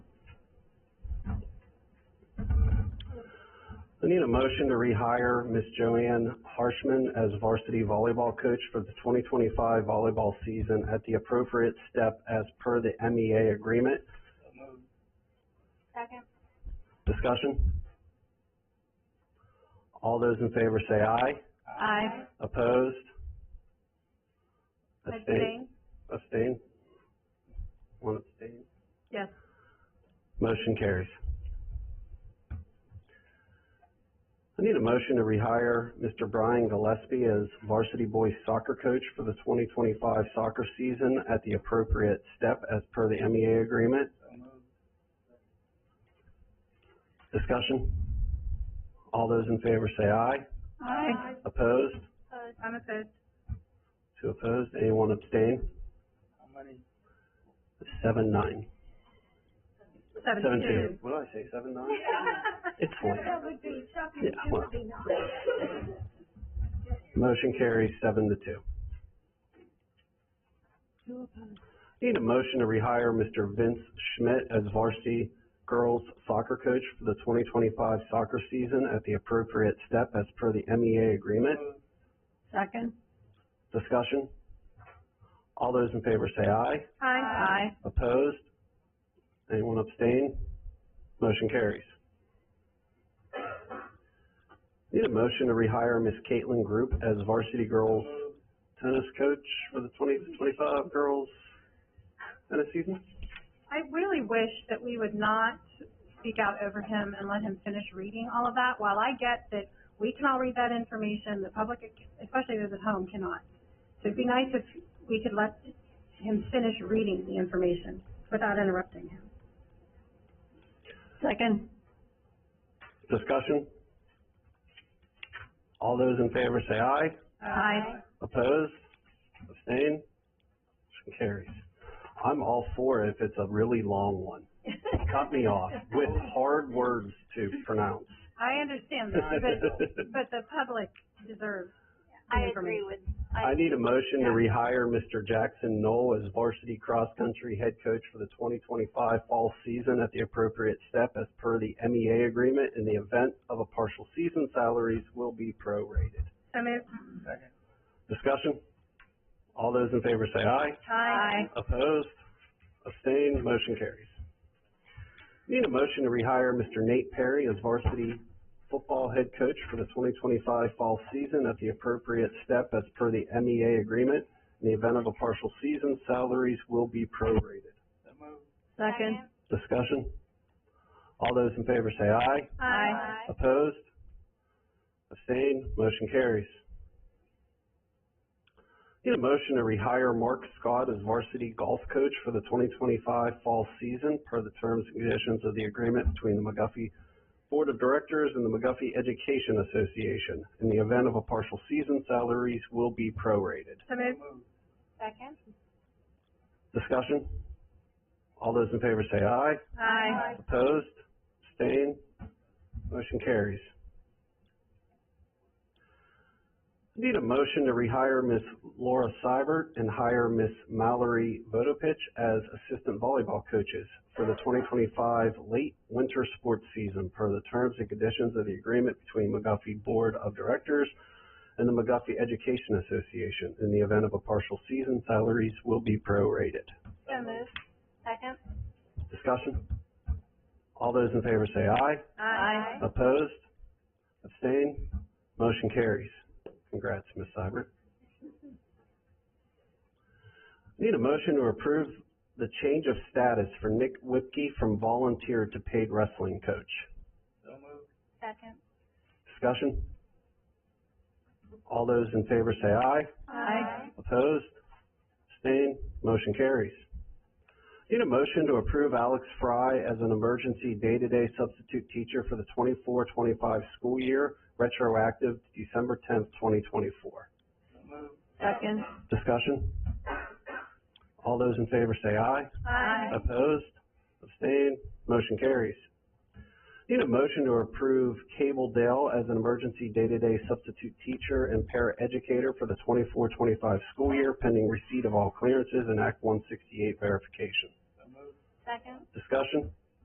need a motion to rehire Miss Joanne Harshman as varsity volleyball coach for the twenty twenty-five volleyball season at the appropriate step as per the MEA agreement. Second. Discussion? All those in favor say aye. Aye. Opposed? Abstain? Abstain? One abstain. Yes. Motion carries. I need a motion to rehire Mr. Brian Gillespie as varsity boys soccer coach for the twenty twenty-five soccer season at the appropriate step as per the MEA agreement. Discussion? All those in favor say aye. Aye. Opposed? I'm opposed. Two opposed, anyone abstain? Seven, nine. Seventeen. What did I say, seven, nine? It's late. That would be shocking. Yeah, well. Motion carries seven to two. Need a motion to rehire Mr. Vince Schmidt as varsity girls soccer coach for the twenty twenty-five soccer season at the appropriate step as per the MEA agreement. Second. Discussion? All those in favor say aye. Aye. Opposed? Anyone abstain? Motion carries. Need a motion to rehire Miss Caitlin Group as varsity girls tennis coach for the twenty to twenty-five girls tennis season? I really wish that we would not speak out over him and let him finish reading all of that. While I get that we can all read that information, the public, especially those at home, cannot. So it'd be nice if we could let him finish reading the information without interrupting him. Second. Discussion? All those in favor say aye. Aye. Opposed? Abstain? Motion carries. I'm all for it if it's a really long one. Uh, Cut me off with hard words to pronounce. I understand that, but, but the public deserves the I agree information. with, I need a motion to rehire Mr. Jackson Knoll as varsity cross-country head coach for the twenty twenty-five fall season at the appropriate step as per the MEA agreement. In the event of a partial season, salaries will be prorated. So moved. Discussion? All those in favor say aye. Aye. Opposed? Abstained? Motion carries. Need a motion to rehire Mr. Nate Perry as varsity football head coach for the twenty twenty-five fall season at the appropriate step as per the MEA agreement. In the event of a partial season, salaries will be prorated. Second. Discussion? All those in favor say aye. Aye. Opposed? Abstained? Motion carries. Need a motion to rehire Mark Scott as varsity golf coach for the twenty twenty-five fall season per the terms and conditions of the agreement between the McGuffey Board of Directors and the McGuffey Education Association. In the event of a partial season, salaries will be prorated. So moved. second, Discussion? All those in favor say aye. Aye. Opposed? Abstained? Motion carries. Need a motion to rehire Miss Laura Seibert and hire Miss Mallory Vodopich as assistant volleyball coaches for the twenty twenty-five late winter sports season per the terms and conditions of the agreement between McGuffey Board of Directors and the McGuffey Education Association. In the event of a partial season, salaries will be prorated. so moved, second, Discussion? All those in favor say aye. Aye. Opposed? Abstained? Motion carries. Congrats, Ms. Seibert. Need a motion to approve the change of status for Nick Whipke from volunteer to paid wrestling coach. second, Discussion? All those in favor say aye. Aye. Opposed? Abstained? Motion carries. Need a motion to approve Alex Fry as an emergency day-to-day substitute teacher for the 24-25 school year, retroactive to December tenth, twenty twenty-four. Second. Discussion? All those in favor say aye. Aye. Opposed? Abstained? Motion carries. Need a motion to approve Cable Dale as an emergency day-to-day substitute teacher and paraeducator for the 24-25 school year pending receipt of all clearances and Act one sixty-eight verification. second, Discussion?